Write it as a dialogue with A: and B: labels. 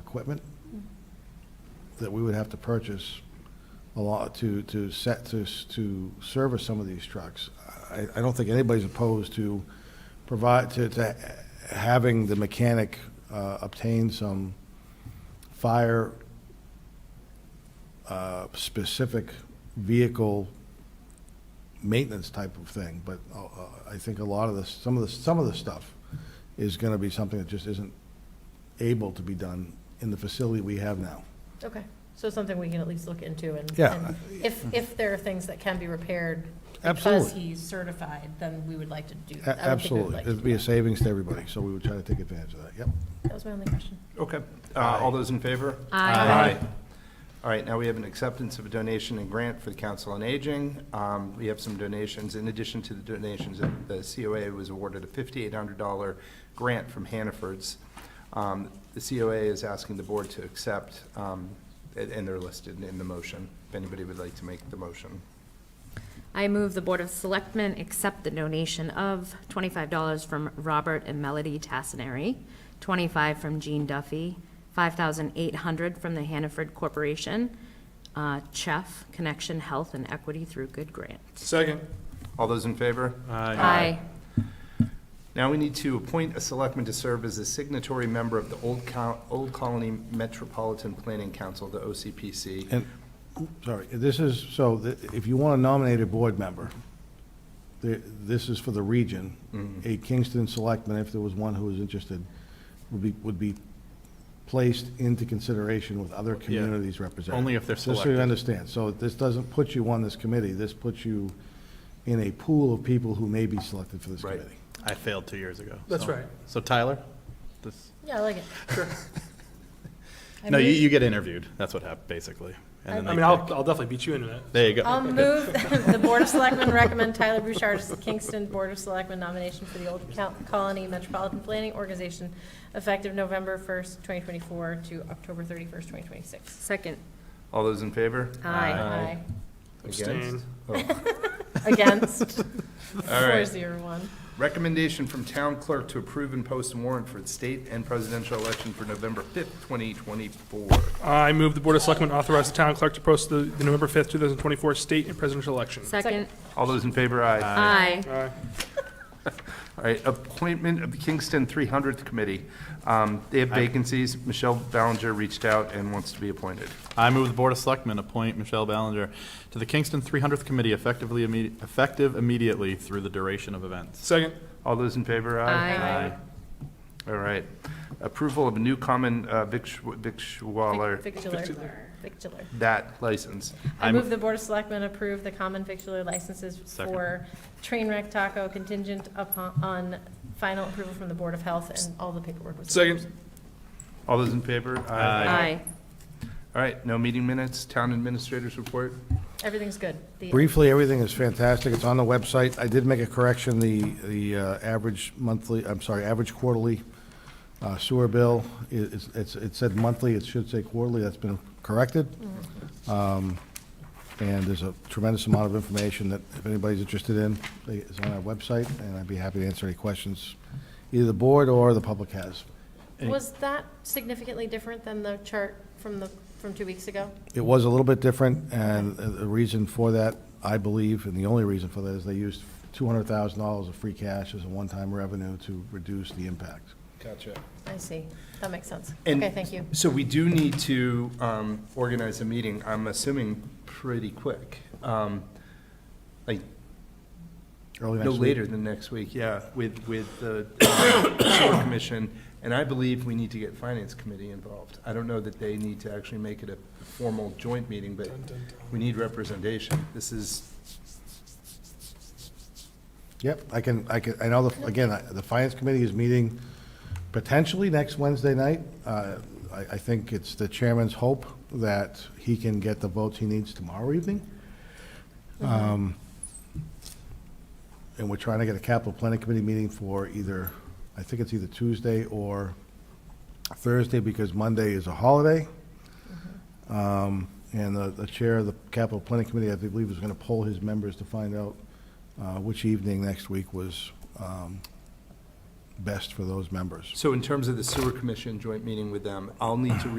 A: equipment that we would have to purchase a lot to, to set, to, s- to service some of these trucks. I, I don't think anybody's opposed to provide, to, to having the mechanic uh, obtain some fire uh, specific vehicle maintenance type of thing, but uh, uh, I think a lot of this, some of the, some of the stuff is going to be something that just isn't able to be done in the facility we have now.
B: Okay, so something we can at least look into and.
A: Yeah.
B: and If, if there are things that can be repaired. Because
A: Absolutely.
B: he's certified, then we would like to do.
A: A-
B: that. I would think we would
A: Absolutely.
B: like to
A: It'd
B: do
A: be a
B: that.
A: savings to everybody, so we would try to take advantage of that, yep.
B: That was my only question.
C: Okay, Uh, all those in favor?
B: Aye.
C: All right, now we have an acceptance of a donation and grant for the Council on Aging. Um, We have some donations, in addition to the donations, that the COA was awarded a $5,800 grant from Hannaford's. Um, The COA is asking the board to accept, um, and and they're listed in the motion, if anybody would like to make the motion.
D: I move the Board of Selectmen accept the donation of twenty-five dollars from Robert and Melody Tassinari, twenty-five from Gene Duffy, five thousand eight hundred from the Hannaford Corporation, uh, CHEF, Connection Health and Equity Through Good Grants.
E: Second.
C: All those in favor?
D: Aye.
C: Now we need to appoint a selectman to serve as a signatory member of the Old Co- Old Colony Metropolitan Planning Council, the OCPC.
A: And, sorry, this is, so th- if you want to nominate a board member, th- this is for the region.
E: Mm-hmm.
A: A Kingston selectman, if there was one who was interested, would be, would be placed into consideration with other communities represented.
E: only if they're
A: Just so you
E: selected.
A: understand. So this doesn't put you on this committee. This puts you in a pool of people who may be selected for this
C: Right.
A: committee.
E: I failed two years ago.
F: That's
E: so-
F: right.
E: So Tyler, this,
B: Yeah, I like it. I
E: no, you,
B: move-
E: you get interviewed. That's what happened, basically. And then
F: I
E: they
F: mean, I'll,
E: pick.
F: I'll definitely beat you into that.
E: There you go.
B: I'll move, the Board of Selectmen recommend Tyler Bouchard as the Kingston Board of Selectmen nomination for the Old Col- Colony Metropolitan Planning Organization effective November first, twenty twenty-four to October thirty-first, twenty twenty-six.
D: Second.
C: All those in favor?
D: Aye.
B: Aye.
C: Against?
F: Abstain.
C: Oh.
B: Against,
C: All
B: four
C: right.
B: zero one.
C: Recommendation from town clerk to approve and post a warrant for the state and presidential election for November 5th, 2024.
F: I move the Board of Selectmen authorize the town clerk to post the the November 5th, 2024 state and presidential election.
D: Second.
C: All those in favor, aye.
D: Aye.
F: Aye.
C: All right, appointment of the Kingston 300th Committee. Um, They have vacancies. Michelle Ballinger reached out and wants to be appointed.
E: I move the Board of Selectmen appoint Michelle Ballinger to the Kingston 300th Committee effectively, imme- effective immediately through the duration of events.
F: Second.
C: All those in favor,
D: Aye.
C: All right. Approval of new common uh, victu- victualler,
B: Victular, victular.
C: that license.
B: I
E: I'm-
B: move the Board of Selectmen approve the common victular licenses
E: Second.
B: for Trainwreck Taco contingent upon, on final approval from the Board of Health and all the paperwork was.
F: Second.
C: All those in favor?
D: Aye.
C: All right, no meeting minutes, town administrators report.
B: Everything's good. The-
A: Briefly, everything is fantastic. It's on the website. I did make a correction, the, the uh, average monthly, I'm sorry, average quarterly uh, sewer bill, i- it's, it's- it said monthly, it should say quarterly, that's been corrected. Um, And there's a tremendous amount of information that if anybody's interested in, is on our website, and I'd be happy to answer any questions either the board or the public has.
B: Was that significantly different than the chart from the, from two weeks ago?
A: It was a little bit different, and the reason for that, I believe, and the only reason for that is they used $200,000 of free cash as a one-time revenue to reduce the impact.
C: Gotcha.
B: I see. That makes sense.
C: And-
B: Okay, thank you.
C: So we do need to um, organize a meeting, I'm assuming pretty quick. Um, Like,
A: Early
C: no
A: next week.
C: later than next week, yeah, with, with the uh, sewer commission. And I believe we need to get finance committee involved. I don't know that they need to actually make it a formal joint meeting, but we need representation. This is,
A: Yep, I can, I can, I know, the again, I- the Finance Committee is meeting potentially next Wednesday night. Uh, I, I think it's the chairman's hope that he can get the votes he needs tomorrow evening. Um, And we're trying to get a capital planning committee meeting for either, I think it's either Tuesday or Thursday, because Monday is a holiday. Um, And the, the chair of the capital planning committee, I believe, is going to poll his members to find out uh, which evening next week was um, best for those members.
C: so in terms of the sewer commission joint meeting with them, I'll need to